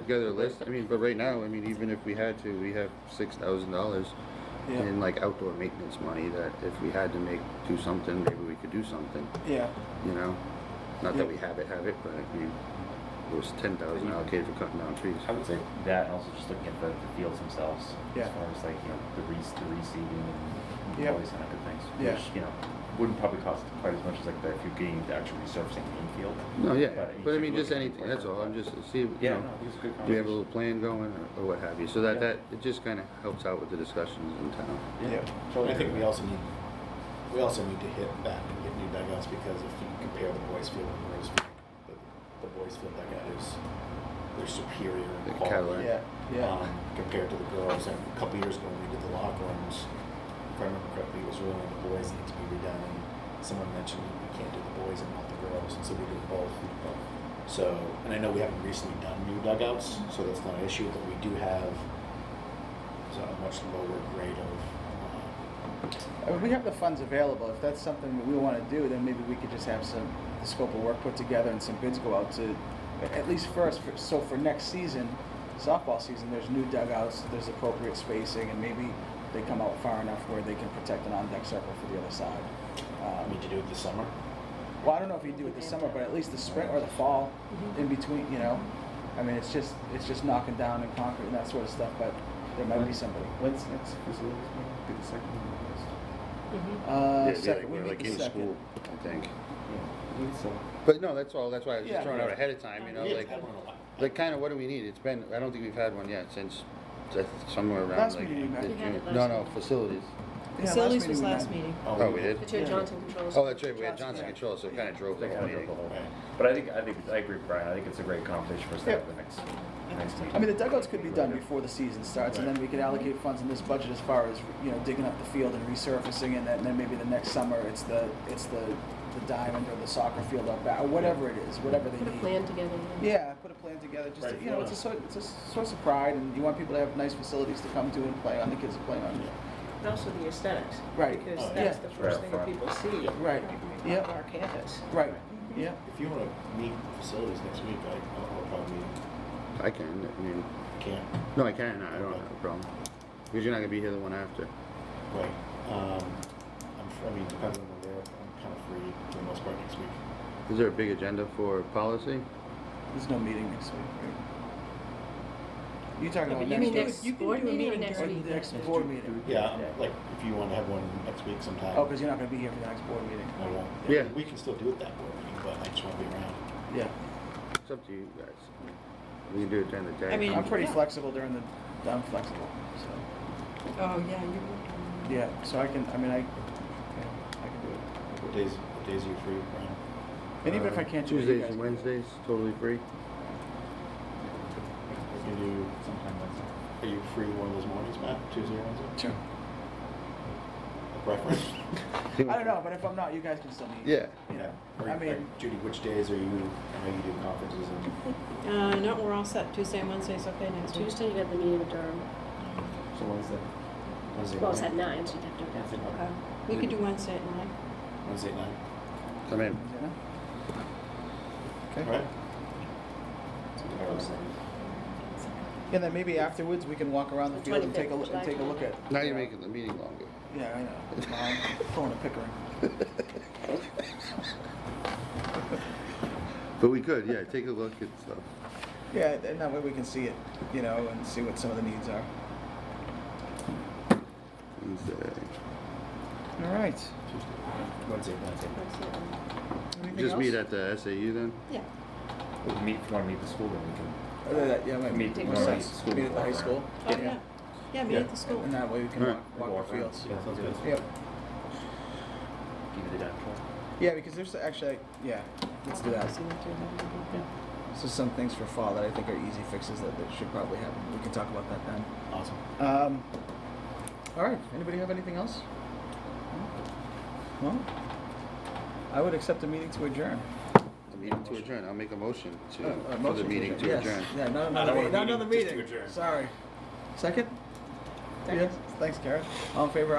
together a list. I mean, but right now, I mean, even if we had to, we have six thousand dollars Yeah. in like outdoor maintenance money that if we had to make, do something, maybe we could do something, Yeah, you know? Not Yeah. that we have it, have it, but I mean, it was ten thousand allocated for cutting down trees. I would say that, and also just looking at the, the fields themselves. Yeah. As far as like, you know, the re, the reseeding and Yeah. place and other things. Yeah. Which, you know, wouldn't probably cost quite as much as like the, if you're getting the actual resurfacing the infield. No, yeah, but But you I should mean, look just at it anything, that's quicker, all, I'm but- just, see, you Yeah, no, know, it was a good do we have a conversation. little plan going or- or what have you, so that, Yeah. Uh, that, it just kinda helps out with the discussions in town. Yeah. yeah, So I think we also need, we also need to hit back and get new dugouts because if you compare the boys field and the girls field, the, the boys field dugout is, they're superior The in Cadillac. quality. yeah, yeah. Um, compared to the girls, and a couple years ago when we did the locker rooms, if I remember correctly, it was really the boys need to be redone and someone mentioned we can't do the boys and not the girls, and so we did both. So, and I know we haven't recently done new dugouts, so that's not an issue, but we do have so a much lower grade of um, I mean, we have the funds available. If that's something that we want to do, then maybe we could just have some the scope of work put together and some bids go out to, at least first. For, so for next season, softball season, there's new dugouts, there's appropriate spacing, and maybe they come out far enough where they can protect an on-deck circle for the other side. I Um, mean, to do it this summer. Well, I don't know if you do it this summer, but at least the spring or the fall, Mm-hmm. in between, you know. I mean, it's just it's just knocking down and concrete and that sort of stuff. But there might be somebody. When's next facilities meeting? Be the second one on the list? Mm-hmm. Yeah, Uh, it'd be second, like- we we're meet like the in second. school, I think. Yeah, uh, I think so. But no, that's all, that's why I was just Yeah. throwing out ahead of time, you know, Yeah, like, I don't know why. like kinda what do we need? It's been, I don't think we've had one yet since, that's somewhere around Last like. meeting we met. the We had June- it No, last no, meeting. facilities. Yeah, Facilities was we last met. meeting. Oh, we did? The two Yeah. had Johnson Controls. Oh, that's right, we had Johnson, Johnson yeah. Control, so it kinda drove the They whole kind of meeting. broke the whole- Right. But I think, I think, I agree with Brian, I think it's a great conversation for us to Yeah. have the next, next meeting. I mean, the dugouts could be done before the season starts, and then we could allocate funds in this budget as far as you know digging up the field and resurfacing, and then, and then maybe the next summer it's the it's the the diamond or the soccer field up back, or whatever it is, whatever they Put a need. plan together. Yeah, put a plan together. Just Right. you know, it's a sort, it's a source of pride, and you want people to have nice facilities to come to and play on. The kids to play on. And also the aesthetics. Right. Because Oh, that's yeah. the first thing that Right. people see. Right. On Yep. our campus. Right. Mm-hmm. Yeah. If you want to meet facilities next week, I, I'll probably I can, I mean, can't. no, I can, I don't have a problem. Because you're not gonna be here the one after. Right. Um, I'm, fr- I mean, depends on when they're, I'm kind of free for the most part next week. Is there a big agenda for policy? There's no meeting next week. Right? You talking about You next mean week? next board meeting or next Or week? next board meeting? Yeah, I'm- like if you want to have one next week sometime. Oh, because you're not going to be here for the next board meeting. I won't. Yeah. We can still do it that board meeting, but I just want to be around. Yeah. It's up to you guys. We can do it during the day. I mean, I'm pretty Yeah. flexible during the. I'm flexible. So Oh, yeah, you were. yeah. So I can. I mean, I. Yeah, I can do it. What days, what days are you free, Brian? And even Uh, if I can't do it, you Tuesdays guys and can do it. Wednesdays, totally free. We can do sometime Wednesday. Are you free one of those mornings, Matt? Tuesday or Wednesday? Sure. A preference? I don't know, but if I'm not, you guys can still meet. Yeah. You know. Or- I mean. or Judy, which days are you, I know you do conferences and. Uh, no, we're all set. Tuesday and Wednesday's okay next week. Tuesday, you got the meeting with Durham. So when's that? Wednesday Well, it's night? at nine, so you'd have to do it after. Okay. We could do Wednesday at night. Wednesday night. I mean, you know? All right. And then maybe afterwards, we can walk around the The field and 25th, take a, look and take a look at. now you're making the meeting longer. Yeah, I know. No, I'm pulling a pickering. But we could, yeah, take a look at stuff. Yeah, and that way we can see it, you know, and see what some of the needs are. Wednesday. All right. Wednesday, Wednesday. Anything Just meet else? at the SAU then? Yeah. We can meet, if you want to meet the school, then we can. Other than that, yeah, maybe. Meet Meet at the school. at the high school. Oh, yeah. Yeah, meet at the school. And that way we can Alright. walk, walk the fields. Yeah, sounds good. Yep. Give you the dime for it. Yeah, because there's actually, yeah, let's do that. See what they're doing. So some things for fall that I think are easy fixes that, that should probably happen. We can talk about that then. Awesome. Um, all right. Anybody have anything else? No. I would accept a meeting to adjourn. The meeting to adjourn, I'll make a motion Uh, to, uh, for the motion meeting to yes. adjourn. Yeah, not Not another, a meeting. not meeting, another just to meeting. adjourn. Sorry. Second. Second. Yes. Thanks, Karen. All in favor?